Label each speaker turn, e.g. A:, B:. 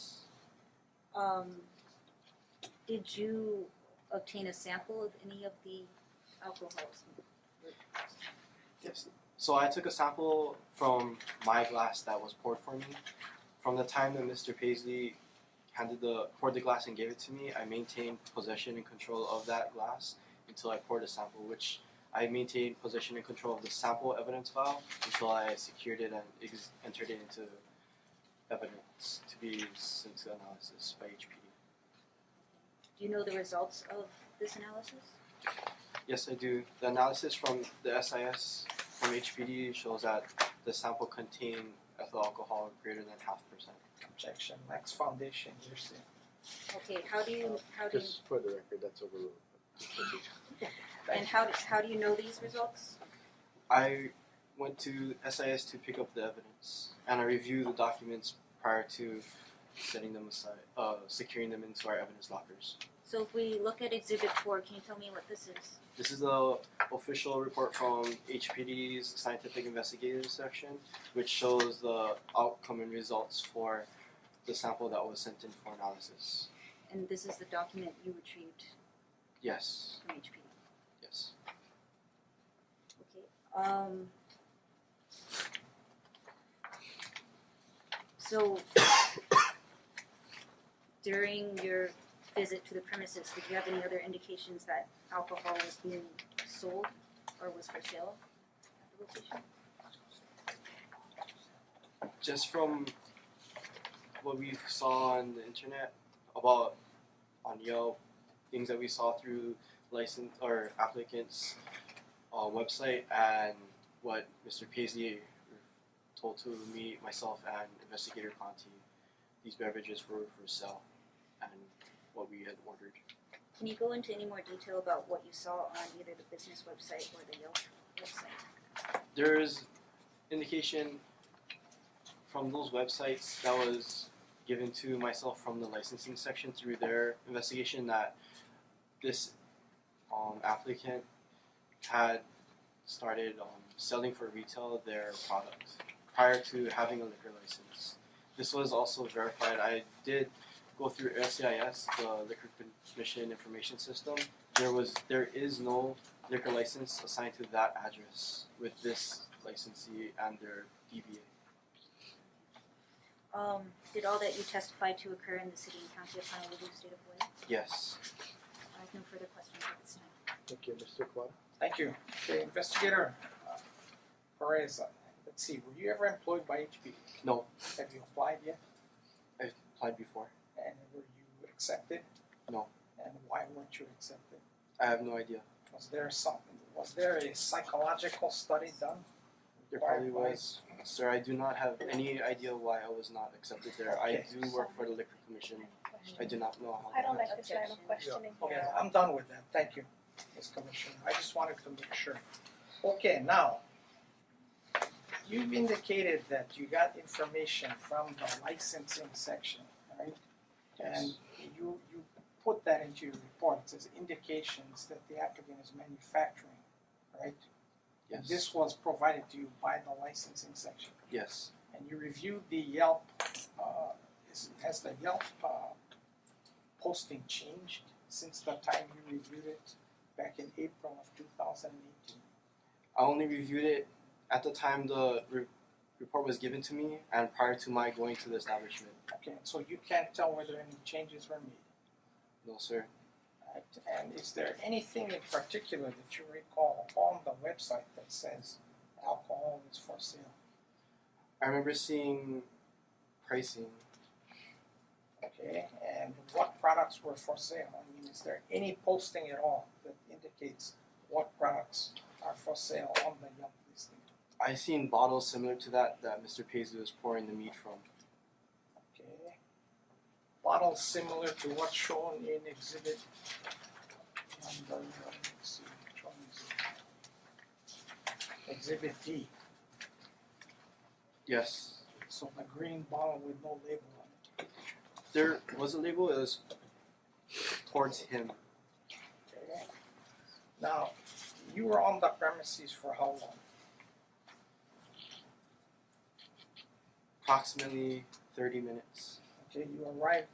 A: um, did you obtain a sample of any of the alcohols?
B: Yes. So I took a sample from my glass that was poured for me. From the time that Mr. Paisley handed the poured the glass and gave it to me, I maintained possession and control of that glass until I poured a sample, which I maintained possession and control of the sample evidence file until I secured it and ex- entered it into evidence to be sent to analysis by HPD.
A: Do you know the results of this analysis?
B: Yes, I do. The analysis from the SIS from HPD shows that the sample contained ethyl alcohol greater than half percent.
C: Objection. Max Foundation, you're saying.
A: Okay, how do you, how do you,
D: Just for the record, that's overruled.
A: and how, do- how do you know these results?
B: I went to SIS to pick up the evidence and I reviewed the documents prior to setting them aside, uh, securing them into our evidence lockers.
A: So if we look at exhibit four, can you tell me what this is?
B: This is the official report from HPD's Scientific Investigators section, which shows the outcome and results for the sample that was sent in for analysis.
A: And this is the document you retrieved
B: Yes,
A: from HPD.
B: yes.
A: Okay, um. So during your visit to the premises, did you have any other indications that alcohol was being sold or was for sale at the location?
B: just from what we saw on the internet about on Yelp, things that we saw through license or applicants' uh, website, and what Mr. Paisley told to me, myself, and investigator Conti, these beverages were for sale, and what we had ordered.
A: Can you go into any more detail about what you saw on either the business website or the Yelp website?
B: there is indication from those websites that was given to myself from the licensing section through their investigation that this um, applicant had started um, selling for retail their product prior to having a liquor license. This was also verified. I did go through SCIS, the Liquor Commission Information System. There was there is no liquor license assigned to that address with this licensee and their DBA.
A: Um, did all that you testified to occur in the city and county of Honolulu, state of Hawaii?
B: Yes.
A: I have no further questions at this time.
D: Thank you, Mr. Kwan.
C: Thank you. Okay, investigator uh, Perez, uh, let's see, were you ever employed by HB?
B: No.
C: Have you applied yet?
B: Applied before.
C: And were you accepted?
B: No.
C: And why weren't you accepted?
B: I have no idea.
C: Was there something, was there a psychological study done?
B: There
C: Why-
B: probably
C: why-
B: was. Sir, I do not have any idea why I was not accepted there. I
C: Okay.
B: do work for the liquor commission. I do not know how
E: I don't
B: that-
E: like this line of questioning
C: Okay,
E: here.
C: I'm done with that, thank you, Ms. Commissioner, I just wanted to make sure. Okay, now, you've indicated that you got information from the licensing section, right? And you, you put that into your reports as indications that the applicant is manufacturing, right? And
B: Yes.
C: This was provided to you by the licensing section
B: Yes.
C: and you reviewed the Yelp, uh, is, has the Yelp, uh, posting changed since the time you reviewed it back in April of two thousand and eighteen?
B: I only reviewed it at the time the re- report was given to me and prior to my going to the establishment.
C: Okay, so you can't tell whether any changes were made,
B: No, sir.
C: right? And is there anything in particular that you recall on the website that says alcohol is for sale?
B: I remember seeing pricing
C: Okay, and what products were for sale? I mean, is there any posting at all that indicates what products are for sale on the Yelp listing?
B: I seen bottles similar to that that Mr. Paisley was pouring the meat from.
C: Okay. Bottle similar to what's shown in exhibit number, uh, let's see, which one is it? Exhibit D,
B: Yes.
C: so the green bottle with no label on it.
B: There was a label, it was towards him.
C: Okay. Now, you were on the premises for how long?
B: Approximately 30 minutes.
C: Okay, you arrived